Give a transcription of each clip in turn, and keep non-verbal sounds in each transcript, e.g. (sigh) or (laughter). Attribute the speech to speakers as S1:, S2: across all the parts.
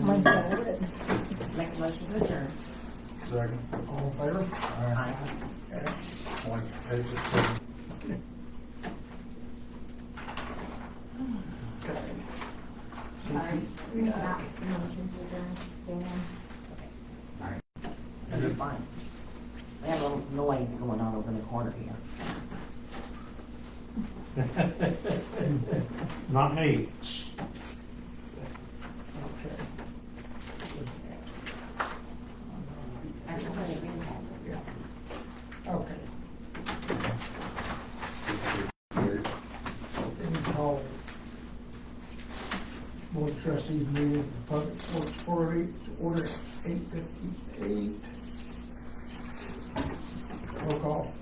S1: My
S2: And
S1: favorite.
S3: Make a motion to adjourn.
S2: second, all in favor?
S3: Aye.
S2: Okay. Point, page is seven.
S3: Sorry.
S1: Not motion to adjourn, Dan.
S3: That'd be fine. We have a little noise going on over in the corner here.
S4: Not me.
S3: Everybody read that.
S2: Okay. Let me call Board of Trustees meeting of the Public Works Authority to order eight fifty-eight. Roll call.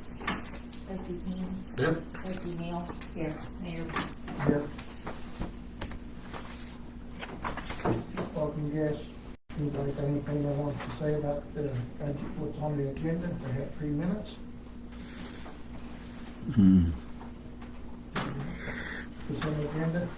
S1: Trustee Payne,
S2: Yep.
S1: trustee Neal, yes, Mayor
S2: Yep. Welcome guests. Anybody got anything they want to say about the, budget, what's on the agenda? They have three minutes. What's on the agenda?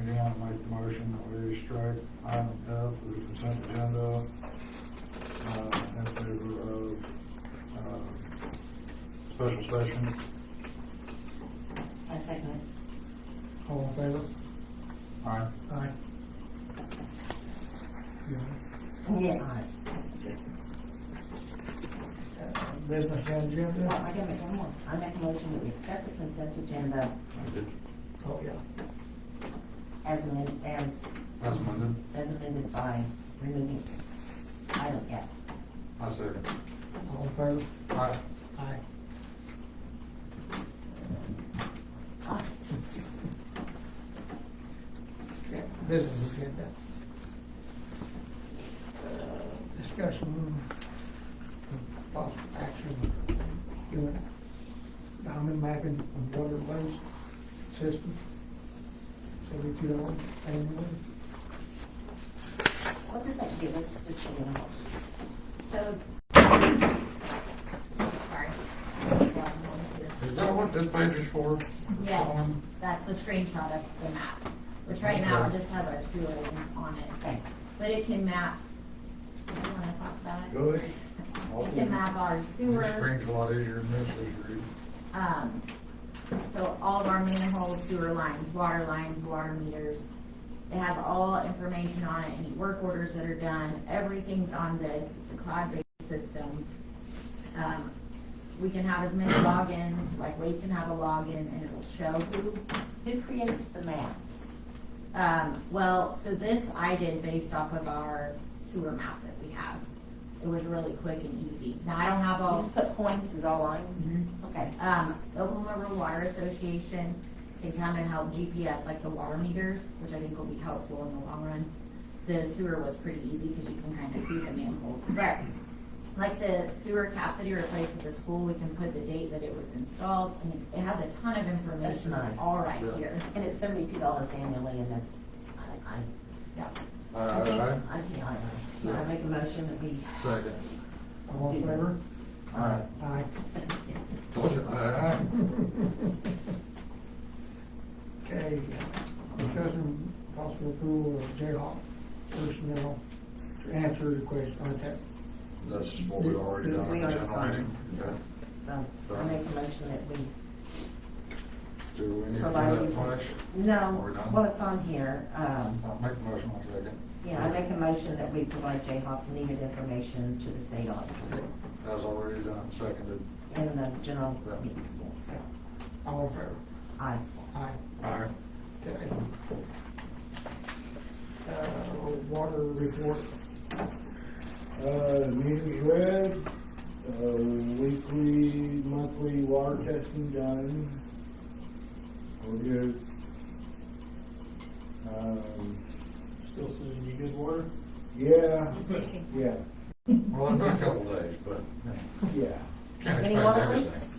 S2: Again, I make the motion that we strike item F of the consent agenda, uh, in favor of, uh, special session.
S3: I second
S2: All in favor? Aye. Aye.
S3: it. Yeah. Aye.
S2: Business
S3: Well,
S2: agenda?
S3: I gotta make one more. I make a motion that we accept the consent agenda
S2: Oh, yeah.
S3: as amended, as,
S5: That's Monday.
S3: as amended by removing item F.
S5: I second.
S2: All in favor?
S5: Aye.
S2: Aye. Business agenda. Uh, Discussion, of possible action, doing diamond mapping of water waste system. Seventy-two dollars annually.
S3: What does that give us, just a minute?
S1: So. Sorry.
S5: Is that what this page is for?
S1: Yeah, that's a screenshot of the map, which right now just has our sewer lines on it,
S3: Okay.
S1: but it can map. Do you wanna talk about it?
S5: Go ahead.
S1: It can map our
S5: Your
S1: sewer,
S5: screen's a lot easier than this is, Reed.
S1: um, so all of our manholes, sewer lines, water lines, water meters. It has all information on it, any work orders that are done, everything's on this, it's a cloud-based system. Um, we can have as many logins, like we can have a login and it'll show who
S3: Who creates the maps?
S1: Um, well, so this I did based off of our sewer map that we have. It was really quick and easy. Now, I don't have
S3: You
S1: all,
S3: put points and draw lines? Okay.
S1: um, the Oklahoma River Water Association can come and help GPS like the water meters, which I think will be helpful in the long run. The sewer was pretty easy because you can kind of see the manholes. But like the sewer cap that he replaced at the school, we can put the date that it was installed and it- it has a ton of information
S3: That's nice.
S1: all right
S5: Yeah.
S1: here.
S3: And it's seventy-two dollars annually, and that's, I, I,
S1: Yeah.
S5: Aye,
S3: I think,
S5: aye,
S3: I think I, I make a motion that we.
S5: aye. Second.
S2: All in favor?
S5: Aye.
S2: Aye.
S5: Told you, aye,
S2: (laughs) Okay, discussion possible approval of Jayhawk personnel to answer the question on
S5: aye.
S2: that.
S5: That's what we already done.
S3: We already
S5: General
S3: signed.
S5: meeting. Okay.
S3: So, I make a motion that we
S5: Do we need to do
S3: provide
S5: that
S3: you.
S5: twice? We're
S3: No,
S5: done?
S3: well, it's on here, um,
S5: I'll make a motion, I'll second.
S3: yeah, I make a motion that we provide Jayhawk needed information to the state auditor
S5: That's already done, seconded.
S3: in the general meeting. Yes.
S2: All in favor?
S3: Aye.
S2: Aye.
S5: Aye.
S2: Okay. Uh, water report.
S6: Uh, meeting's read, uh, weekly, monthly water testing done. We're good. Um,
S2: Still says you good water?
S6: yeah, yeah,
S5: Well, it'll be a couple days, but
S6: yeah.
S5: can't
S3: Any
S5: expect
S3: water
S5: everything.
S3: leaks?